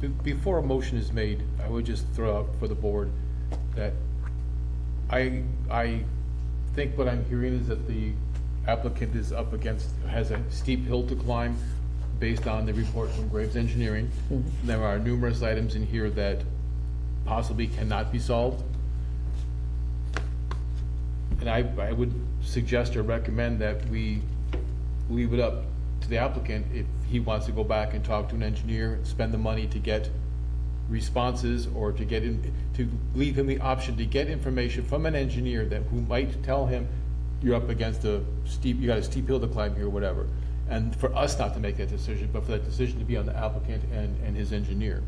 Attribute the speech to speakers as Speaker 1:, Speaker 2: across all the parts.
Speaker 1: be- before a motion is made, I would just throw out for the board that I, I think what I'm hearing is that the applicant is up against, has a steep hill to climb based on the report from Graves Engineering. There are numerous items in here that possibly cannot be solved. And I, I would suggest or recommend that we leave it up to the applicant if he wants to go back and talk to an engineer, spend the money to get responses or to get in, to leave him the option to get information from an engineer that, who might tell him, you're up against a steep, you got a steep hill to climb here, or whatever. And for us not to make that decision, but for that decision to be on the applicant and, and his engineer.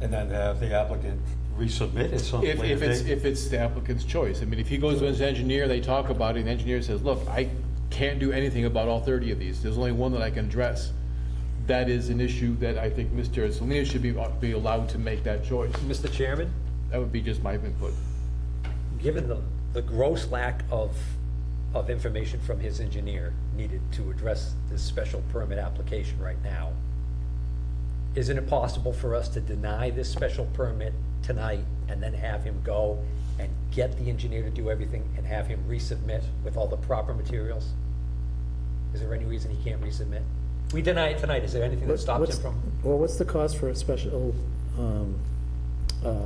Speaker 2: And then have the applicant resubmit at some
Speaker 1: If,
Speaker 2: later
Speaker 1: if it's,
Speaker 2: date?
Speaker 1: if it's the applicant's choice, I mean, if he goes to his engineer, they talk about it, and the engineer says, look, I can't do anything about all thirty of these, there's only one that I can address. That is an issue that I think Mr. Salinas should be, be allowed to make that choice.
Speaker 3: Mr. Chairman,
Speaker 1: That would be just my input.
Speaker 3: given the, the gross lack of, of information from his engineer needed to address this special permit application right now, isn't it possible for us to deny this special permit tonight and then have him go and get the engineer to do everything and have him resubmit with all the proper materials? Is there any reason he can't resubmit? We deny it tonight, is there anything that
Speaker 4: What-
Speaker 3: stops
Speaker 4: what's-
Speaker 3: him from?
Speaker 4: Well, what's the cost for a special, um, uh,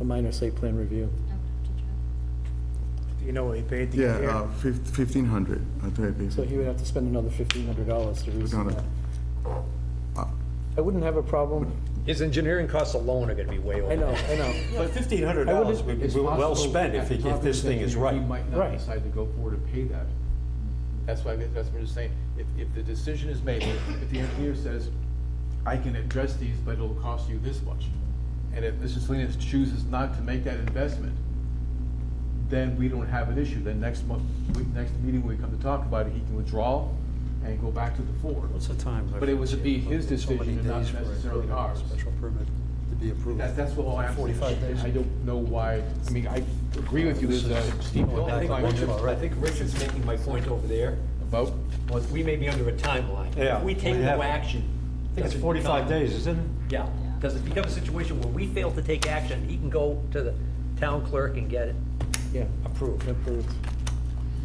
Speaker 4: a minor site plan review?
Speaker 5: I would have to check.
Speaker 6: You know what he paid the
Speaker 7: Yeah,
Speaker 6: engineer?
Speaker 7: uh, fif- 1,500, I think it'd be.
Speaker 4: So he would have to spend another fifteen hundred dollars to
Speaker 7: We're
Speaker 4: resubmit.
Speaker 7: gonna-
Speaker 4: I wouldn't have a problem,
Speaker 3: His engineering costs alone are gonna be way over.
Speaker 4: I know,
Speaker 3: that.
Speaker 4: I know,
Speaker 2: But fifteen hundred
Speaker 4: I would-
Speaker 2: dollars would be
Speaker 1: It's
Speaker 2: well
Speaker 1: possible
Speaker 2: spent if, he-
Speaker 1: that
Speaker 2: if this thing is
Speaker 1: Robin's engineer,
Speaker 2: right.
Speaker 1: He might not
Speaker 4: Right.
Speaker 1: decide to go forward and pay that. That's why, that's what I'm just saying, if, if the decision is made, if the engineer says, I can address these, but it'll cost you this much. And if Mr. Salinas chooses not to make that investment, then we don't have an issue, then next month, we, next meeting, when we come to talk about it, he can withdraw and go back to the floor.
Speaker 8: What's the time?
Speaker 1: But it was to be his
Speaker 8: So many
Speaker 1: decision and not
Speaker 8: days for a
Speaker 1: necessarily ours.
Speaker 8: Special permit to be approved.
Speaker 1: That, that's what I'm saying.
Speaker 8: Forty-five days.
Speaker 1: I don't know why, I mean, I agree with you, there's a steep hill
Speaker 3: I
Speaker 1: to
Speaker 3: think
Speaker 1: climb.
Speaker 3: Richard- I think Richard's making my point over there,
Speaker 1: About,
Speaker 3: was we may be under a timeline.
Speaker 2: Yeah,
Speaker 3: If we take
Speaker 2: we have-
Speaker 3: no action.
Speaker 2: I think it's
Speaker 3: does it
Speaker 2: forty-five
Speaker 3: become-
Speaker 2: days, isn't it?
Speaker 3: Yeah, does it become a situation where we fail to take action, he can go to the town clerk and get it
Speaker 4: yeah,
Speaker 3: approved?
Speaker 4: approved.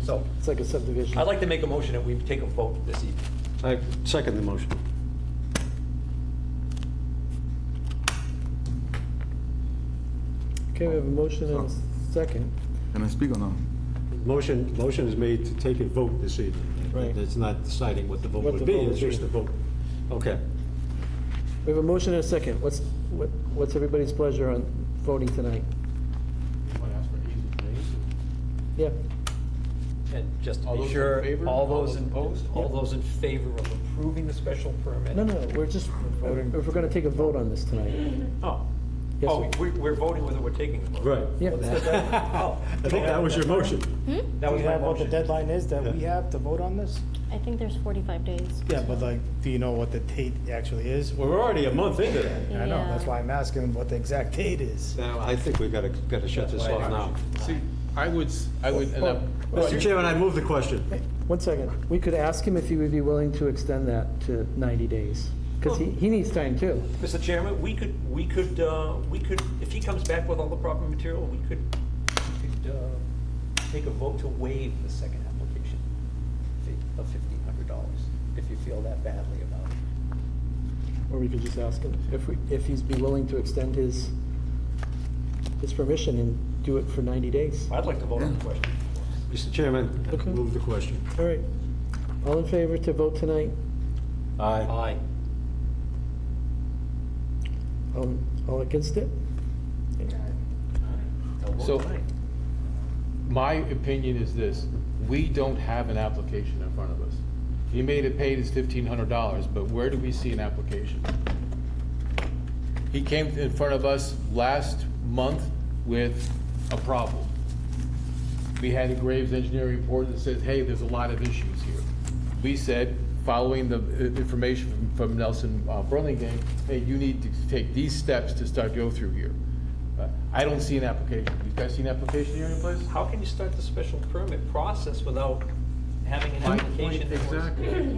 Speaker 3: So
Speaker 4: It's like a subdivision.
Speaker 3: I'd like to make a motion that we take a vote this evening.
Speaker 2: I second the motion.
Speaker 4: Okay, we have a motion and a second.
Speaker 7: Can I speak or no?
Speaker 2: Motion, motion is made to take a vote this evening.
Speaker 4: Right.
Speaker 2: It's not deciding what the vote
Speaker 4: What
Speaker 2: would
Speaker 4: the
Speaker 2: be,
Speaker 4: vote
Speaker 2: it's
Speaker 4: would
Speaker 2: just
Speaker 4: be.
Speaker 2: the vote. Okay.
Speaker 4: We have a motion and a second. What's, what- what's everybody's pleasure on voting tonight?
Speaker 1: you want to ask for an easement, an easement.
Speaker 4: Yeah,
Speaker 3: And just to
Speaker 1: All
Speaker 3: be
Speaker 1: those in
Speaker 3: sure,
Speaker 1: favor?
Speaker 3: all
Speaker 1: All
Speaker 3: those
Speaker 1: those
Speaker 3: in,
Speaker 1: opposed?
Speaker 3: all those in favor of approving the special permit?
Speaker 4: no, no, we're just, if we're gonna take a vote on this tonight.
Speaker 3: Oh,
Speaker 4: Yes,
Speaker 3: oh,
Speaker 4: sir.
Speaker 3: we- we're voting whether we're taking a vote.
Speaker 2: Right.
Speaker 4: Yeah.
Speaker 2: I think that was your motion.
Speaker 3: That
Speaker 6: Do
Speaker 3: was
Speaker 6: you
Speaker 3: my
Speaker 6: have what the
Speaker 3: motion.
Speaker 6: deadline is that we
Speaker 2: Yeah.
Speaker 6: have to vote on this?
Speaker 5: I think there's 45 days.
Speaker 6: Yeah, but like, do you know what the date actually is?
Speaker 2: We're already a month into that.
Speaker 6: I know, that's
Speaker 5: Yeah.
Speaker 6: why I'm asking what the exact date is.
Speaker 2: Now, I think we gotta, gotta shut this off now.
Speaker 1: See, I would, s- I would, and I'm-
Speaker 2: Mr. Chairman, I move the question.
Speaker 4: One second. We could ask him if he would be willing to extend that to ninety days, because he, he needs time too.
Speaker 3: Mr. Chairman, we could, we could, uh, we could, if he comes back with all the proper material, we could, we could uh, take a vote to waive the second application fee of fifteen hundred dollars, if you feel that badly about it.
Speaker 4: Or we could just ask him if we, if he's be willing to extend his, his permission and do it for ninety days.
Speaker 3: I'd like to vote on the question.
Speaker 2: Mr. Chairman, I
Speaker 4: Okay.
Speaker 2: move the question.
Speaker 4: All right. All in favor to vote tonight?
Speaker 2: Aye.
Speaker 3: Aye.
Speaker 4: All, Um, all against it?
Speaker 1: So- my opinion is this, we don't have an application in front of us. He made it paid his fifteen hundred dollars, but where do we see an application? He came in front of us last month with a problem. We had a Graves engineering report that says, hey, there's a lot of issues here. We said, following the uh, information from- from Nelson uh, Burlingame, hey, you need to take these steps to start go through here. Uh, I don't see an application. You guys see an application here in place?
Speaker 3: How can you start the special permit process without having an
Speaker 1: My point
Speaker 3: application? that was-
Speaker 1: Exactly.